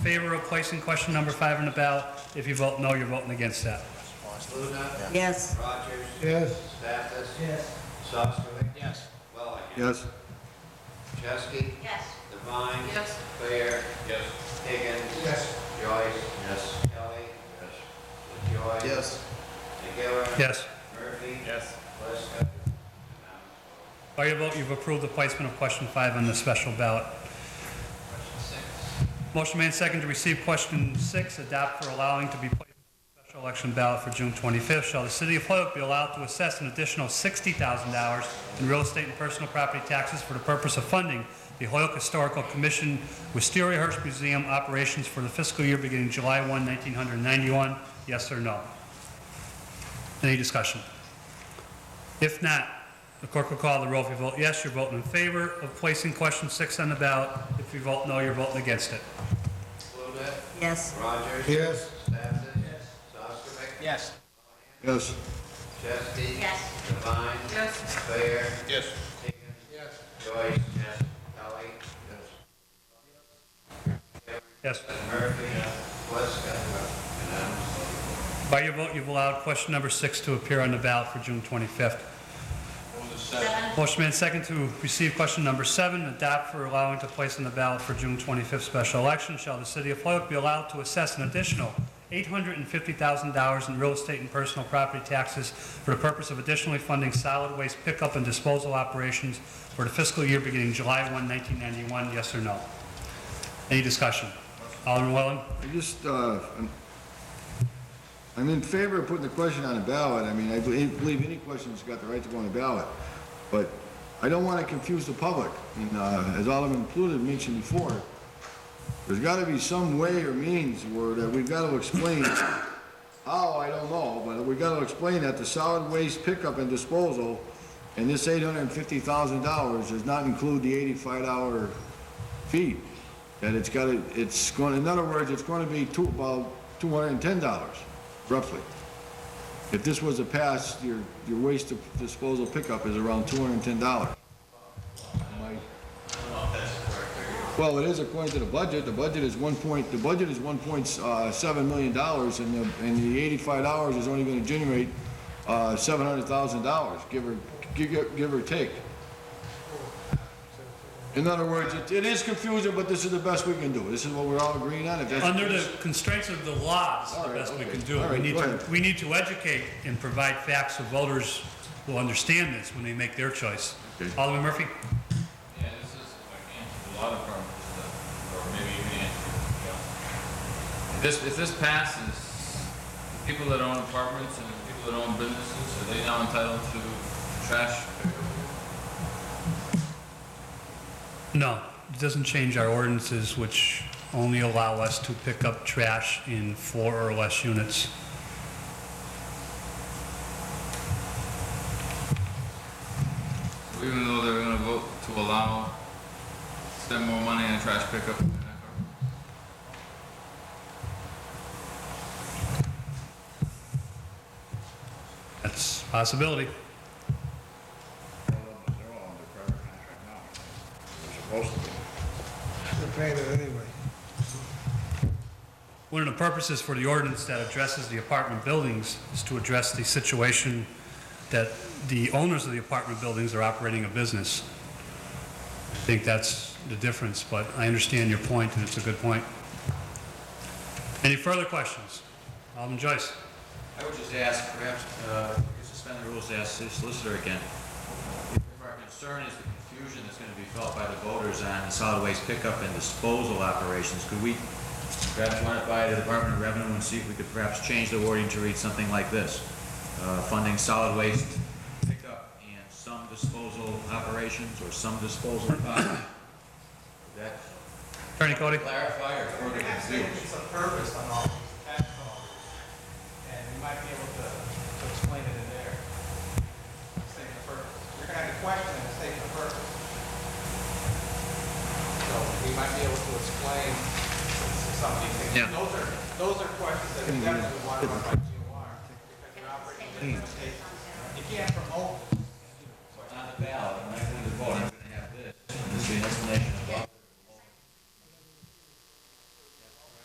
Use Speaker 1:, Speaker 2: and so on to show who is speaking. Speaker 1: Favor of placing question number five on the ballot. If you vote no, you're voting against that.
Speaker 2: Luna.
Speaker 3: Yes.
Speaker 2: Rogers.
Speaker 4: Yes.
Speaker 2: Mathis. Yes. Sostaly. Yes. Wellaham.
Speaker 4: Yes.
Speaker 2: Chesky.
Speaker 3: Yes.
Speaker 2: Devine.
Speaker 3: Yes.
Speaker 2: Claire. Yes. Higgins. Yes. Joyce. Yes. Kelly. Yes. LaJoy.
Speaker 4: Yes.
Speaker 2: McGivern.
Speaker 1: Yes.
Speaker 2: Murphy.
Speaker 5: Yes.
Speaker 2: Lisca.
Speaker 1: By your vote, you've approved the placement of question five on the special ballot.
Speaker 2: Question six.
Speaker 1: Motion made second to receive question six, adopt for allowing to be placed on the special election ballot for June 25th. Shall the city of Hoyoke be allowed to assess an additional $60,000 in real estate and personal property taxes for the purpose of funding the Hoyoke Historical Commission Wisteria Hearst Museum operations for the fiscal year beginning July 1, 1991? Yes or no? Any discussion? If not, the clerk will call the roll. If you vote yes, you're voting in favor of placing question six on the ballot. If you vote no, you're voting against it.
Speaker 2: Luna.
Speaker 3: Yes.
Speaker 2: Rogers.
Speaker 4: Yes.
Speaker 2: Mathis. Yes. Sostaly.
Speaker 5: Yes.
Speaker 4: Yes.
Speaker 2: Chesky.
Speaker 3: Yes.
Speaker 2: Devine.
Speaker 3: Yes.
Speaker 2: Claire.
Speaker 5: Yes.
Speaker 2: Higgins. Yes. Joyce. Yes. Kelly. Yes.
Speaker 1: Yes.
Speaker 2: Murphy. Lisca. Unanimous.
Speaker 1: By your vote, you've allowed question number six to appear on the ballot for June 25th.
Speaker 3: Seven.
Speaker 1: Motion made second to receive question number seven, adopt for allowing to place on the ballot for June 25th special election. Shall the city of Hoyoke be allowed to assess an additional $850,000 in real estate and personal property taxes for the purpose of additionally funding solid waste pickup and disposal operations for the fiscal year beginning July 1, 1991? Yes or no? Any discussion? Alderman Welling?
Speaker 4: I just, uh, I'm- I'm in favor of putting the question on the ballot. I mean, I believe believe any question's got the right to go on the ballot. But I don't want to confuse the public. And uh, as Alderman Pluto mentioned before, there's got to be some way or means where that we've got to explain, how, I don't know, but we've got to explain that the solid waste pickup and disposal and this $850,000 does not include the $85 fee. That it's got to, it's going, in other words, it's going to be two, about $210 roughly. If this was a pass, your, your waste disposal pickup is around $210. My- well, it is according to the budget. The budget is one point, the budget is one point, uh, seven million dollars, and the, and the eighty-five dollars is only gonna generate, uh, seven hundred thousand dollars, give or, give, give or take. In other words, it, it is confusing, but this is the best we can do. This is what we're all agreeing on. If that's-
Speaker 1: Under the constraints of the law, it's
Speaker 4: All
Speaker 1: the
Speaker 4: right,
Speaker 1: best we
Speaker 4: okay.
Speaker 1: can do.
Speaker 4: All
Speaker 1: We
Speaker 4: right,
Speaker 1: need
Speaker 4: go
Speaker 1: to,
Speaker 4: ahead.
Speaker 1: we need to educate and provide facts so voters will understand this when they make their choice.
Speaker 4: Okay.
Speaker 1: Alderman Murphy?
Speaker 6: Yeah, this is like anti- a lot of firms, uh, or maybe even anti, you know. If This, if this passes, people that own apartments and people that own businesses, are they now entitled to trash?
Speaker 1: No, it doesn't change our ordinances, which only allow us to pick up trash in four or less units.
Speaker 6: Even though they're gonna vote to allow, spend more money on trash pickup? than that garbage?
Speaker 1: That's a possibility.
Speaker 7: They're paying it anyway.
Speaker 1: One of the purposes for the ordinance that addresses the apartment buildings is to address the situation that the owners of the apartment buildings are operating a business. I think that's the difference, but I understand your point, and it's a good point. Any further questions? Alderman Joyce?
Speaker 5: I would just ask, perhaps, uh, we could suspend the rules, to ask the solicitor again. If our concern is the confusion that's gonna be felt by the voters on the solid waste pickup and disposal operations, could we perhaps run it by the Department of Revenue and see if we could perhaps change the wording to read something like this? Uh, funding solid waste pickup and some disposal operations or some disposal, uh, that
Speaker 1: Attorney Cody?
Speaker 5: clarify or further confuse?
Speaker 8: It's a purpose on all these tax dollars, and we might be able to to explain it in there. Statement of purpose. You're gonna have a question and a statement of purpose. So we might be able to explain some of these
Speaker 5: Yeah.
Speaker 8: things. Those are, those are questions that we definitely want to run by GOR, because you're operating in a state. You can't promote
Speaker 5: on the ballot,